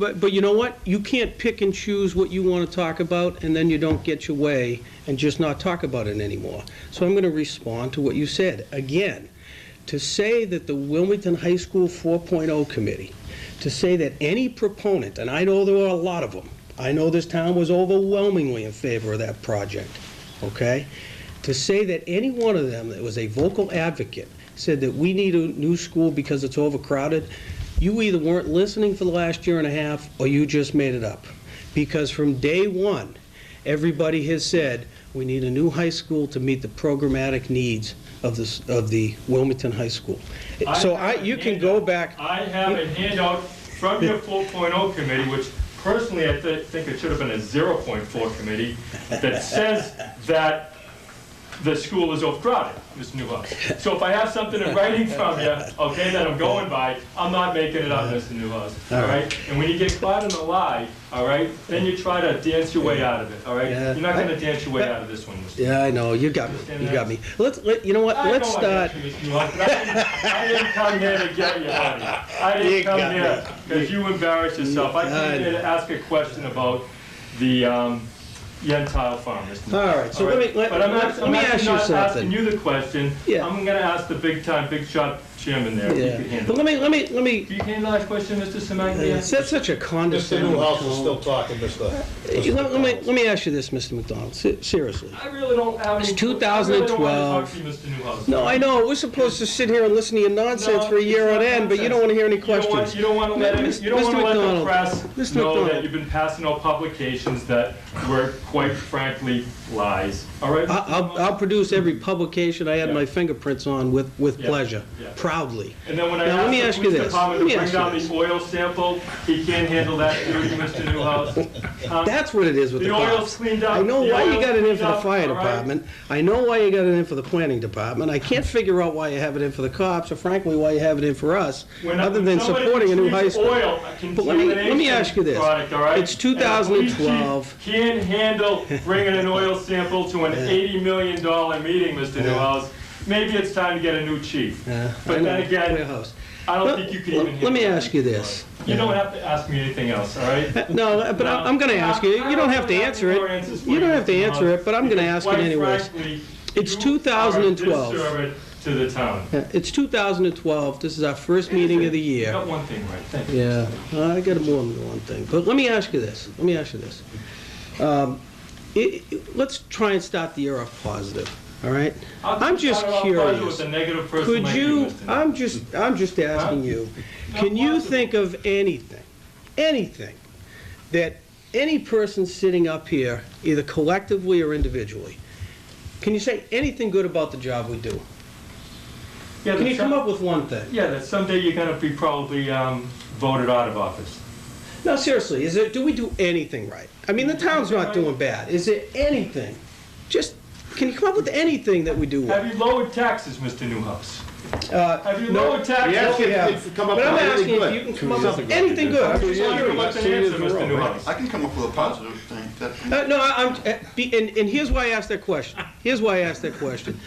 But, but you know what? You can't pick and choose what you want to talk about, and then you don't get your way and just not talk about it anymore. So I'm going to respond to what you said. Again, to say that the Wilmington High School 4.0 Committee, to say that any proponent, and I know there are a lot of them, I know this town was overwhelmingly in favor of that project, okay? To say that any one of them that was a vocal advocate said that we need a new school because it's overcrowded, you either weren't listening for the last year and a half, or you just made it up. Because from day one, everybody has said, we need a new high school to meet the programmatic needs of this, of the Wilmington High School. So I, have a you can go handout. back. I have a handout from your 4.0 committee, which personally I thi- think it should have been a 0.4 committee, that says that the school is overcrowded, Mr. Newhouse. So if I have something in writing from you, okay, that I'm going by, I'm not making it up, Mr. Newhouse, all right? And when you get caught in a lie, all right, then you try to dance your way out of it, all right? Yeah. You're not gonna dance your way out of this one, Mr. Yeah, I know, you got me, you got me. Let's, let, you know what, I let's know I start. got you, Mr. Newhouse, but I didn't- I didn't come here to get you, honey. I You didn't got come me. here because you embarrassed yourself. I I came here to ask a question about the um, Yentile farm, Mr. Newhouse. All right, so All let right? me, let But I'm not- let me ask you I'm actually not asking something. you the question. Yeah. I'm gonna ask the big time, big shot chairman there, if you could Yeah, handle but it. let me, let me, let me, Can you handle that question, Mr. it's Semaglia? that's such a Mr. condescending Newhouse is tone. still talking, Mr. Let let me, let me ask you this, Mr. McDonald, se- seriously. I really don't have any... It's I really don't want to talk to you, Mr. Newhouse. No, I know, we're supposed to sit here and listen to your nonsense No, for a year on it's not end, but you don't nonsense. want to hear any You don't want- questions. You don't want to let, Mis- it- you don't Mr. want to let the McDonald, press Mr. know McDonald. that you've been passing out publications that were quite frankly lies, all right? I- I'll, I'll produce every publication I had Yeah. my fingerprints on with, with Yeah, pleasure, yeah. proudly. And then when I Now, let asked me the ask you police this. Let department to me bring ask you down this. the oil sample, he can't handle that, do you, Mr. Newhouse? Huh? That's what it is with the The oil's cops. cleaned up. I know The why you oil's got it in cleaned for the up, fire all right? department. I know why you got it in for the planning department. I can't figure out why you have it in for the cops, or frankly, why you have it in for us, When I- other when than somebody supporting a new high treats school. oil, a But let me- let me contamination ask you this. product, all right? It's And the police chief 2012. Can't handle bringing an oil sample to an $80 million meeting, Mr. Newhouse. Maybe it's time to get a new chief. Yeah, I But know. then again, Warehouse. I don't Let- think you can even handle Let me that. ask you this. You don't have to ask me anything else, all right? No, but I- I'm going to ask you, you don't have to answer it. You don't have to answer it, but I'm going to ask it anyways. It's 2012. You are a disservice to the town. Yeah, It's 2012, this is our first meeting of the You year. got one thing right, thank you. Yeah, Uh, I got more than one thing, but let me ask you this, let me ask you this. Um, it- it- Let's try and start the year off positive, all right? I'll I'm just start off curious. With a negative person Could like you, you, uh, Mr. Knapp. I'm just, I'm just asking you, Not can you possible. think of anything, anything, that any person sitting up here, either collectively or individually, can you say anything good about the job we do? Yeah, Can that you some- come up with one thing? Yeah, that someday you're gonna be probably um, voted out of office. No, seriously, is it, do we do anything right? I mean, the town's not doing bad. Is there anything? Just, can you come up with anything that we do Have well? you lowered taxes, Mr. Newhouse? Uh, Have you no, lowered taxes? Yes, we if- have. if you come up But I'm with asking anything if good. you can come up Two years with ago. anything good. I'm Two just years ago. wondering what What's an Two years answer, in a row, Mr. right? Newhouse? I can come up with a positive thing. that- Uh, no, I- I'm, uh, be- and, and here's why I asked that question. Here's why I asked that question.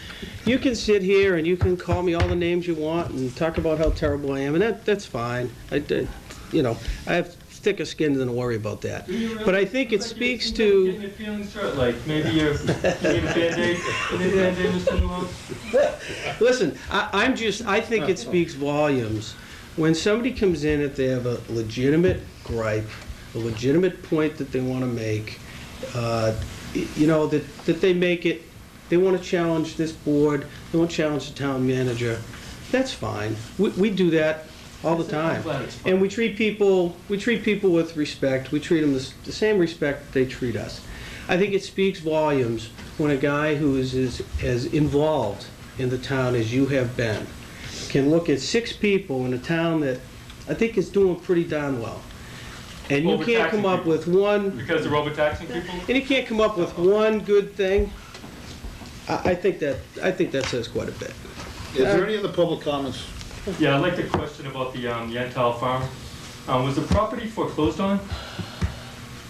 You can sit here and you can call me all the names you want and talk about how terrible I am, and that, that's fine. I, did- you know, I have thicker skin than to worry about that. Do you really- But I think it like you- speaks you to. Getting your feelings hurt, like maybe you're, you need a Band-Aid, you need a Band-Aid, Mr. Newhouse? Listen, I, I'm just, I think it speaks volumes. When somebody comes in, if they have a legitimate gripe, a legitimate point that they want to make, uh, y- you know, that, that they make it, they want to challenge this board, they want to challenge the town manager, that's fine. We, we do that all the time. glad it's fine. And we treat people, we treat people with respect, we treat them the s- the same respect they treat us. I think it speaks volumes when a guy who is as, as involved in the town as you have been can look at six people in a town that I think is doing pretty darn well. And you can't come up Overtaxing people. with one, Because they're overtaxing people? and you can't come up with one good thing. I, I think that, I think that says quite a bit. Is there any other public comments? Yeah, I'd like to question about the um, Yantal Farm. Um, Was the property foreclosed on?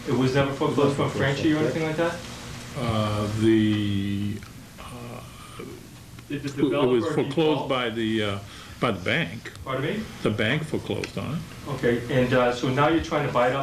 It was never foreclosed from Franchi or anything like that? Uh, The, Did the it was developer foreclosed default? by the uh, by the bank. Pardon me? The bank foreclosed on it. Okay, and uh, so now you're trying to buy it off